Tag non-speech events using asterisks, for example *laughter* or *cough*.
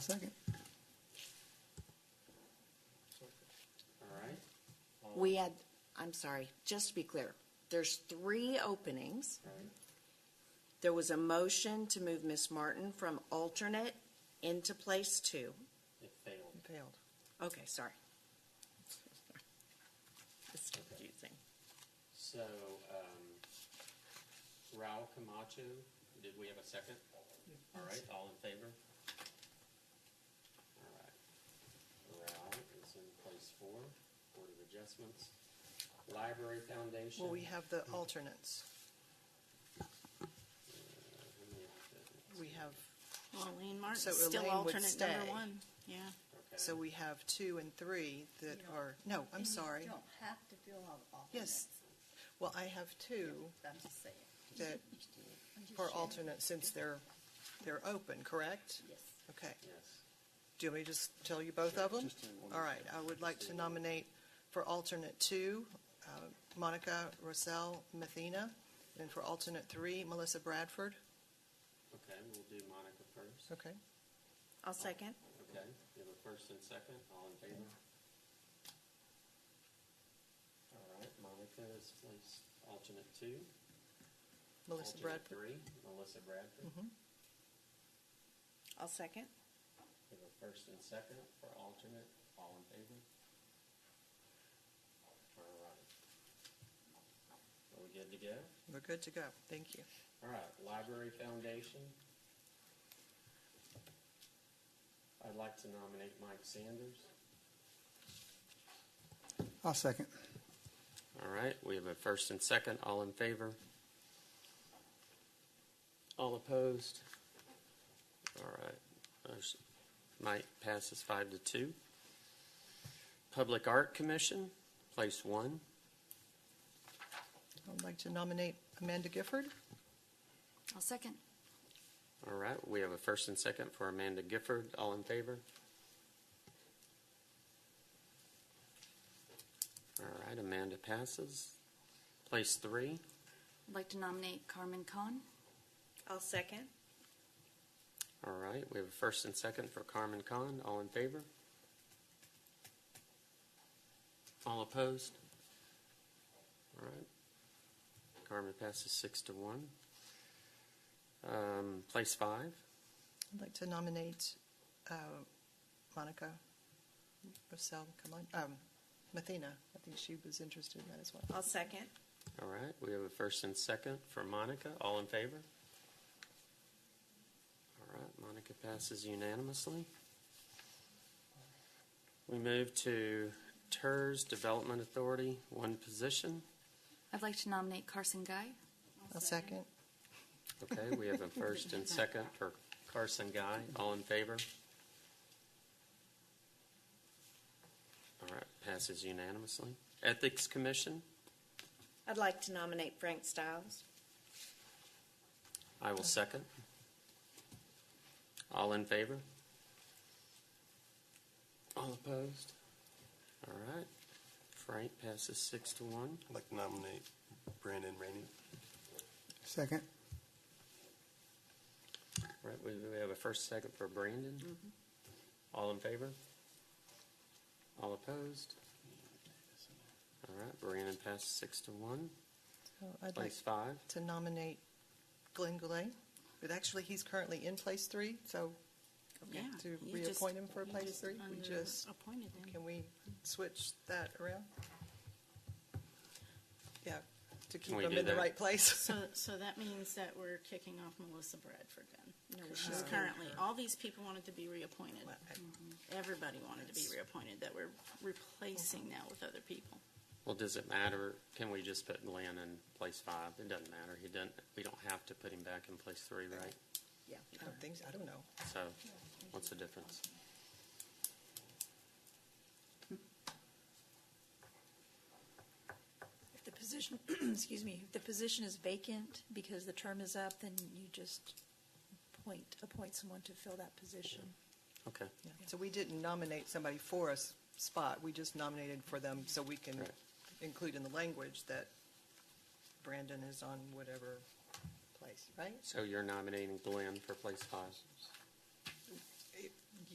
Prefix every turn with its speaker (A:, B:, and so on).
A: Second.
B: All right,
C: We had, I'm sorry, just to be clear, there's three openings.
B: all right.
C: There was a motion to move Miss Martin from alternate into place two.
B: It failed.
A: Failed.
C: Okay, sorry. *laughs* It's confusing.
B: So, um, Raul Camacho, did we have a second? All right, all in favor? All right. Raul is in place four, Board of Adjustments. Library Foundation.
A: Well, we have the alternates.
B: uh, how many alternates?
A: We have,
D: Marlene Martin,
A: So
D: still
A: Elaine would
D: alternate
A: stay.
D: number one, yeah.
B: Okay.
A: so we have two and three that
E: You don't-
A: are, no, I'm
E: And you
A: sorry.
E: don't have to fill out all the
A: Yes. Well, I have two
E: minutes, I'm just saying.
A: that
E: I'm just
A: are
E: sharing.
A: alternate since they're, they're open, correct?
E: Yes.
A: Okay.
B: Yes.
A: Do you want me to just tell you both of them?
B: Just do one.
A: All right, I would like to nominate for alternate two, uh, Monica Rosell Mathena, and for alternate three, Melissa Bradford.
B: Okay, we'll do Monica first.
A: Okay.
C: I'll second.
B: Okay, we have a first and second, all in favor? All right, Monica is place alternate two.
A: Melissa
B: alternate
A: Bradford. Mm-hmm.
B: Three, Melissa Bradford.
C: I'll second.
B: We have a first and second for alternate, all in favor? All right. Are we good to go?
A: We're good to go. Thank you.
B: All right, Library Foundation. I'd like to nominate Mike Sanders.
A: I'll second.
B: All right, we have a first and second, all in favor? All opposed? All right, motion- Mike passes five to two. Public Art Commission, place one.
A: I'd like to nominate Amanda Gifford.
D: I'll second.
B: All right, we have a first and second for Amanda Gifford, all in favor? All right, Amanda passes. Place three,
D: I'd like to nominate Carmen Khan.
C: I'll second.
B: all right, we have a first and second for Carmen Khan, all in favor? All opposed? All right, Carmen passes six to one. Um, Place five,
A: I'd like to nominate uh, Monica Rosell, come on, um, Mathena. I think she was interested in that as well.
C: I'll second.
B: all right, we have a first and second for Monica, all in favor? All right, Monica passes unanimously. We move to TERS Development Authority, one position.
D: I'd like to nominate Carson Guy.
A: I'll second.
B: Okay, we have a first and second for Carson Guy. All in favor? All right, passes unanimously. Ethics Commission,
C: I'd like to nominate Frank Stiles.
B: I will second. All in favor? All opposed? All right. Frank passes six to one.
F: I'd like to nominate Brandon Rainey.
G: Second.
B: All Right, we we have a first second for Brandon. All in favor? All opposed? All right, Brandon passes six to one.
A: So Oh, I'd like
B: Place five.
A: to nominate Glenn Goulet, but actually, he's currently in place three, so
D: Yeah,
A: to
D: you just-
A: reappoint him for
D: you
A: place
D: just
A: three, we
D: under-
A: just,
D: Appointed him.
A: can we switch that around? Yeah, to keep
B: we
A: him
B: do
A: in the
B: that?
A: right
D: *laughs*
A: place.
E: So, so that means that we're kicking off Melissa Bradford then?
C: No, we
E: She's
C: should.
E: currently, all these people wanted to be reappointed.
A: Well, I-
E: Everybody wanted to be reappointed, that we're replacing now with other people.
B: Well, does it matter? Can we just put Glenn in place five? It doesn't matter. He doesn't, we don't have to put him back in place three, right?
A: Yeah, I don't think, so. I don't know.
B: So what's the difference?
H: If the position, *clears throat* excuse me, if the position is vacant because the term is up, then you just appoint, appoint someone to fill that position.
B: Okay,
A: Yeah. So we didn't nominate somebody for a s- spot, we just nominated for them so we can
B: Right.
A: include in the language that Brandon is on whatever place, right?
B: so you're nominating Glenn for place five?